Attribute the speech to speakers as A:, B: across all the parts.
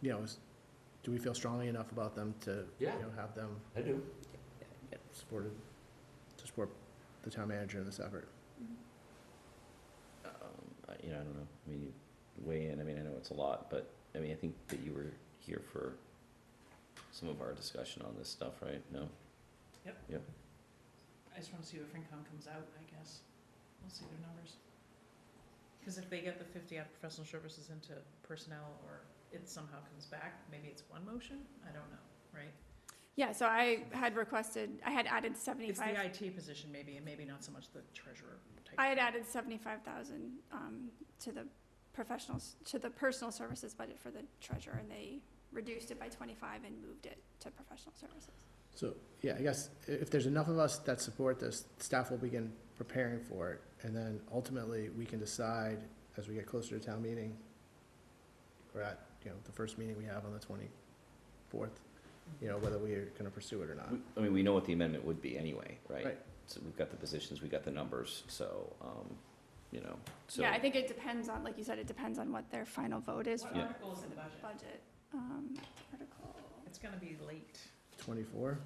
A: you know, is, do we feel strongly enough about them to, you
B: Yeah.
A: know, have them
B: I do.
A: supported, to support the town manager in this effort?
C: Um, I- You know, I don't know, I mean, you weigh in, I mean, I know it's a lot, but, I mean, I think that you were here for some of our discussion on this stuff, right? No?
D: I just wanna see what FinCom comes out, I guess. We'll see their numbers. Cause if they get the fifty out of professional services into personnel or it somehow comes back, maybe it's one motion, I don't know, right?
E: Yeah, so I had requested, I had added
D: It's the
E: seventy-five,
D: IT position maybe, and maybe not so much the treasurer type.
E: I had added seventy-five thousand, um, to the professionals, to the personal services budget for the treasurer, and they reduced it by twenty-five and moved it to professional services.
A: So, yeah, I guess i- if there's enough of us that support this, staff will begin preparing for it. And then ultimately, we can decide as we get closer to town meeting, or at, you know, the first meeting we have on the twenty-fourth, you know, whether we are gonna pursue it or not.
C: We- I mean, we know what the amendment would be anyway, right?
A: Right.
C: So we've got the positions, we've got the numbers, so, um, you know, so.
E: Yeah, I think it depends on, like you said, it depends on what their final vote is
D: What
E: for
C: Yeah.
D: article is in the budget?
E: budget, um, article.
D: It's gonna be late,
A: Twenty-four?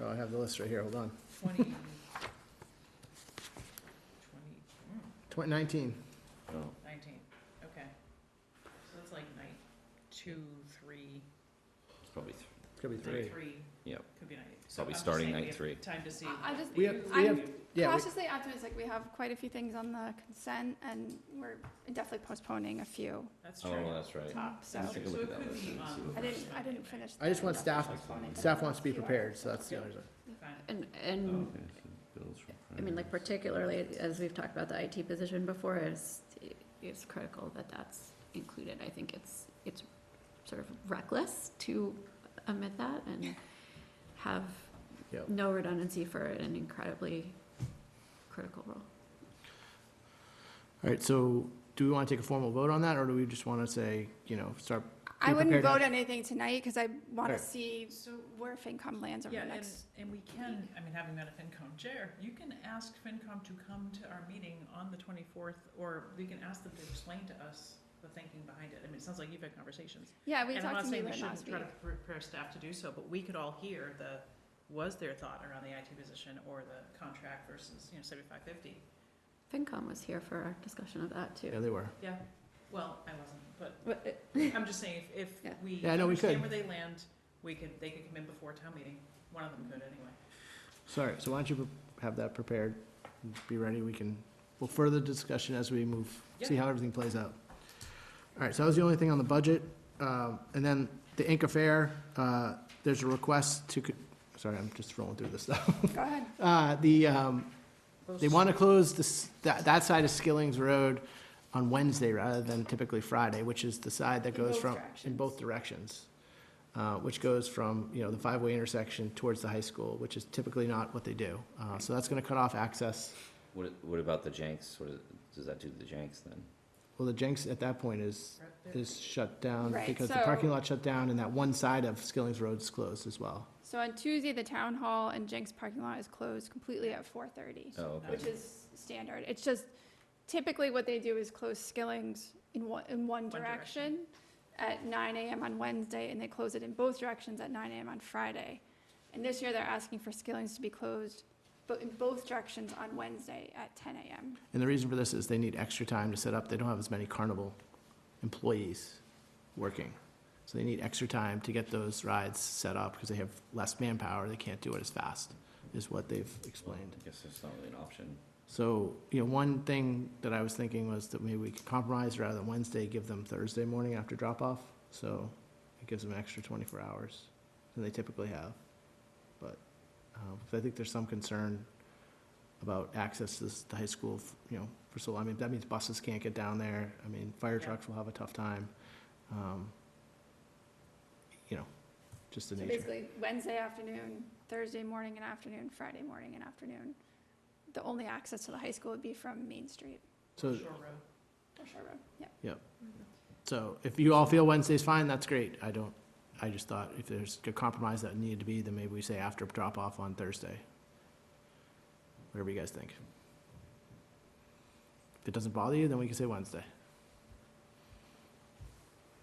A: Oh, I have the list right here, hold on.
D: twenty, twenty, mm,
A: Twenty nineteen.
C: Oh,
D: nineteen, okay. So that's like night two, three,
C: It's probably, th-
A: It's gonna be
D: night
A: three.
D: three.
C: Yep.
D: Could be night. so
C: Probably
D: I'm just
C: starting
D: saying we
C: night
D: have
C: three.
D: Time to see.
E: I- I just-
A: We have, we
E: I'm
A: have, yeah, we-
E: Cautiously optimistic, we have quite a few things on the consent, and we're definitely postponing a few
D: That's true.
C: oh, that's right.
E: top, so.
C: Let's take a look at
D: So it
C: that
D: could
C: list
D: be um,
C: and
D: on
C: see what-
E: I didn't, I didn't finish.
A: I just
E: the-
A: want staff-
E: postponing.
A: staff wants to be prepared, so that's the
E: Yeah.
A: only reason.
D: Fine.
F: And,
C: Oh,
F: and,
C: okay, so bills from
F: I mean, like
C: prior years.
F: particularly, as we've talked about the IT position before, is, it's critical that that's included. I think it's, it's sort of reckless to omit that and have
A: Yep.
F: no redundancy for an incredibly critical role.
A: All right, so do we want to take a formal vote on that, or do we just want to say, you know, start?
E: I wouldn't
A: prepared
E: vote
A: now?
E: on anything tonight, because I want to
A: Right.
E: see
D: So,
E: where FinCom lands over
D: yeah,
E: the
D: and,
E: next.
D: and we can, I mean, having been a FinCom chair, you can ask FinCom to come to our meeting on the twenty-fourth, or we can ask them to explain to us the thinking behind it. I mean, it sounds like you've had conversations.
E: Yeah, we
D: And I'm
E: talked
D: not
E: to
D: saying
E: Mueller
D: we
E: last
D: shouldn't
E: week.
D: try to prepare staff to do so, but we could all hear the, was their thought around the IT position or the contract versus, you know, seventy-five, fifty?
F: FinCom was here for our discussion of that
A: Yeah,
F: too.
A: they were.
D: Yeah, well, I wasn't, but
F: But it-
D: I'm just saying, if, if
F: Yeah.
D: we
A: Yeah, I know we
D: understand
A: could.
D: where they land, we could, they could come in before town meeting, one of them could anyway.
A: Sorry, so why don't you pre- have that prepared, be ready, we can, we'll further discussion as we move, see how everything plays out. All right, so that was the only thing on the budget, um, and then the Inca Fair, uh, there's a request to, co- sorry, I'm just rolling through this stuff.
E: Go ahead.
A: Uh, the, um,
D: Those-
A: They want to close this, that, that side of Skilling's Road on Wednesday rather than typically Friday, which is the side that
E: In
A: goes
E: both
A: from, in both directions. Uh, which goes from, you know, the five-way intersection towards the high school, which is typically not what they do. Uh, so that's gonna cut off access.
C: What, what about the Jenks? What, is- does that do to the Jenks then?
A: Well, the Jenks at that point is, is shut down
E: Right,
A: because the
E: so-
A: parking lot shut down and that one side of Skilling's Road is closed as well.
E: So on Tuesday, the town hall and Jenks parking lot is closed completely at four thirty,
C: Oh,
E: which
C: okay.
E: is standard. It's just typically what they do is close Skilling's in one, in one
D: direction.
E: direction at nine AM on Wednesday, and they close it in both directions at nine AM on Friday. And this year, they're asking for Skilling's to be closed, but in both directions on Wednesday at ten AM.
A: And the reason for this is they need extra time to set up. They don't have as many carnival employees working. So they need extra time to get those rides set up because they have less manpower. They can't do it as fast, is what they've explained.
C: I guess it's not really an option.
A: So, you know, one thing that I was thinking was that maybe we could compromise rather than Wednesday, give them Thursday morning after drop off. So it gives them an extra twenty-four hours than they typically have. But, um, 'cause I think there's some concern about access to this- the high school, f- you know, for so, long. I mean, that means buses can't get down there. I mean, fire
D: Yeah.
A: trucks will have a tough time. Um, You know, just the
E: So
A: nature.
E: basically, Wednesday afternoon, Thursday morning and afternoon, Friday morning and afternoon. The only access to the high school would be from Main Street
A: So
D: Shore Road.
E: or Shore Road, yeah. Mm-hmm.
A: So if you all feel Wednesday's fine, that's great. I don't, I just thought if there's a compromise that needed to be, then maybe we say after drop off on Thursday. Whatever you guys think. If it doesn't bother you, then we can say Wednesday.